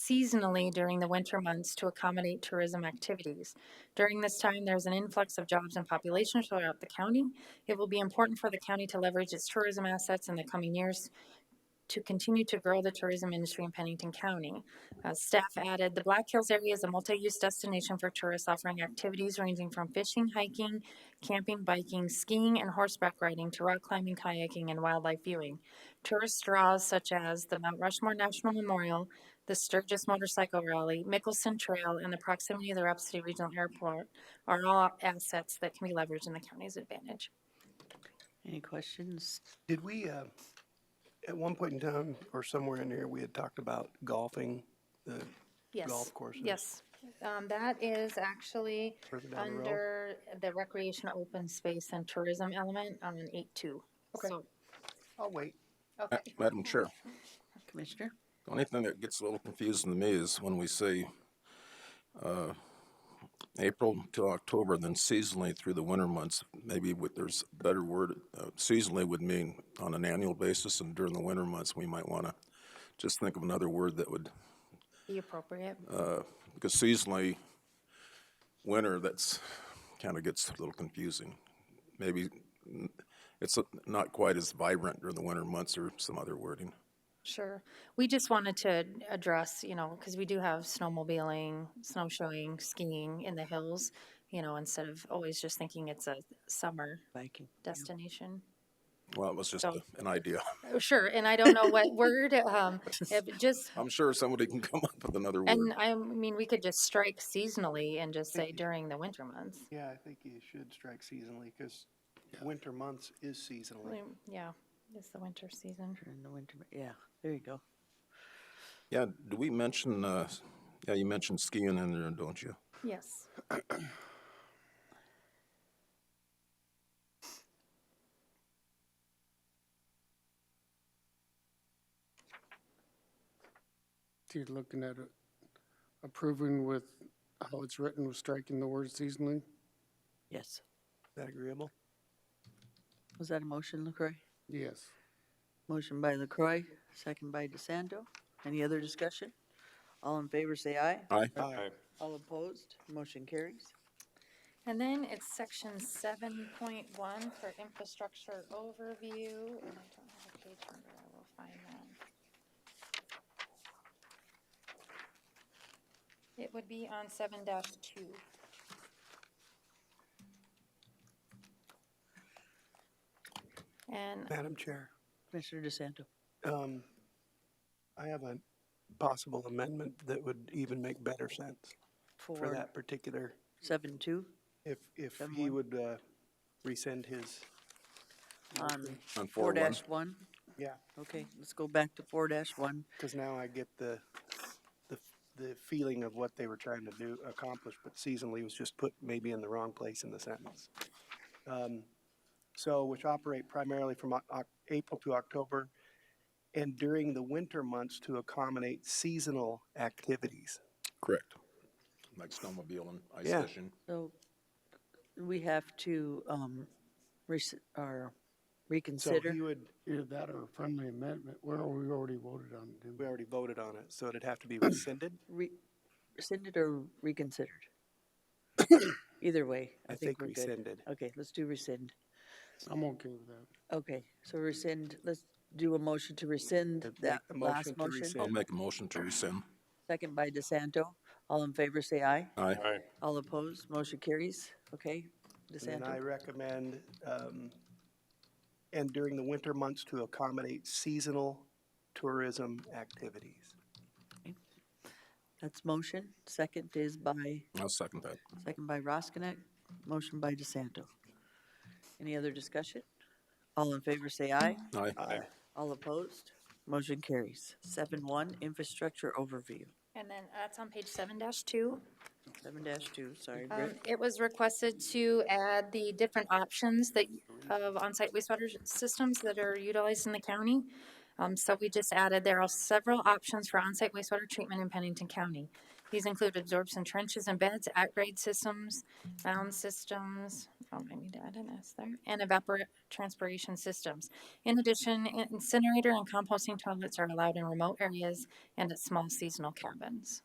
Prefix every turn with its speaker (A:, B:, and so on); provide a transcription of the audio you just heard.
A: seasonally during the winter months to accommodate tourism activities. During this time, there's an influx of jobs and population throughout the county. It will be important for the county to leverage its tourism assets in the coming years to continue to grow the tourism industry in Pennington County. Uh, staff added, the Black Hills area is a multi-use destination for tourists offering activities ranging from fishing, hiking, camping, biking, skiing, and horseback riding to rock climbing, kayaking, and wildlife viewing. Tourist draws such as the Mount Rushmore National Memorial, the Sturgis Motorcycle Rally, Mickelson Trail, and the proximity of the Rep City Regional Airport are all assets that can be leveraged in the county's advantage.
B: Any questions?
C: Did we, uh, at one point in time, or somewhere in here, we had talked about golfing, the
A: Yes.
C: golf courses?
A: Yes. Um, that is actually
C: Further down the road?
A: under the recreation, open space and tourism element on an eight two. So,
C: I'll wait.
A: okay,
D: Madam Chair,
B: Commissioner?
D: the only thing that gets a little confusing to me is when we say uh, April till October, then seasonally through the winter months. Maybe with, there's a better word, uh, seasonally would mean on an annual basis, and during the winter months, we might want to just think of another word that would,
A: be appropriate.
D: because seasonally, winter, that's, kind of gets a little confusing. Maybe mm, it's not quite as vibrant during the winter months or some other wording.
A: Sure. We just wanted to address, you know, because we do have snowmobiling, snowshoeing, skiing in the hills, you know, instead of always just thinking it's a summer
B: Viking.
A: destination.
D: Well, it was just
A: So-
D: a- an idea.
A: Oh, Sure, and I don't know what word, um, if it just,
D: I'm sure somebody can come up with another
A: and
D: word.
A: I mean, we could just strike seasonally and just say during the winter months.
C: Yeah, I think you should strike seasonally, because winter months is seasonally.
A: Mm, Yeah, it's the winter season.
B: During the winter, yeah, there you go.
D: Yeah, do we mention, uh, yeah, you mentioned skiing in there, don't you?
A: Yes.
E: You're looking at it, approving with how it's written, with striking the word seasonally?
B: Yes.
C: Is that agreeable?
B: Was that a motion, LaCroy?
E: Yes.
B: Motion by LaCroy, second by DeSanto. Any other discussion? All in favor, say aye.
D: Aye.
C: Aye.
B: All opposed, motion carries.
A: And then it's section seven point one for infrastructure overview. And I don't have a page number, I will find that. It would be on seven dash two. And
C: Madam Chair,
B: Commissioner DeSanto.
C: um, I have a possible amendment that would even make better sense for
B: For
C: that particular,
B: seven two
C: if, if
B: Seven
C: he
B: one.
C: would, uh, rescind his,
B: on
D: On
B: four
D: four one.
B: dash one.
C: yeah,
B: Okay, let's go back to four dash one.
C: because now I get the, the, the feeling of what they were trying to do, accomplish, but seasonally was just put maybe in the wrong place in the sentence. Um, So, which operate primarily from Oc- Oc- April to October and during the winter months to accommodate seasonal activities.
D: Correct. Like snowmobile and ice
C: Yeah.
D: fishing.
B: So we have to, um, rec- or reconsider.
C: So he would,
E: Either that or a friendly amendment, well, we already voted on it, didn't
C: we
E: we?
C: already voted on it, so it'd have to be rescinded.
B: re- rescinded or reconsidered? Either way, I
C: I
B: think
C: think
B: we're good.
C: rescinded.
B: Okay, let's do rescind.
E: I'm okay with that.
B: Okay, so rescind, let's do a motion to rescind
C: Make
B: that
C: the
B: last
C: motion to
B: motion.
C: rescind.
D: I'll make a motion to rescind.
B: Second by DeSanto. All in favor, say aye.
D: Aye.
B: All opposed, motion carries. Okay,
C: And then I
B: DeSanto,
C: recommend, um, and during the winter months to accommodate seasonal tourism activities.
B: that's motion. Second is by,
D: I'll second that.
B: second by Roskinek, motion by DeSanto. Any other discussion? All in favor, say aye.
D: Aye.
C: Aye.
B: All opposed? Motion carries. Seven one, infrastructure overview.
A: And then that's on page seven dash two.
B: Seven dash two, sorry,
A: Um,
B: Britt.
A: It was requested to add the different options that, of onsite wastewater systems that are utilized in the county. Um, so we just added, there are several options for onsite wastewater treatment in Pennington County. These include absorption trenches and beds, at-grade systems, mound systems, Don't mind me to add an S there, and evapor transpiration systems. In addition, incinerator and composting toilets are allowed in remote areas and at small seasonal cabins.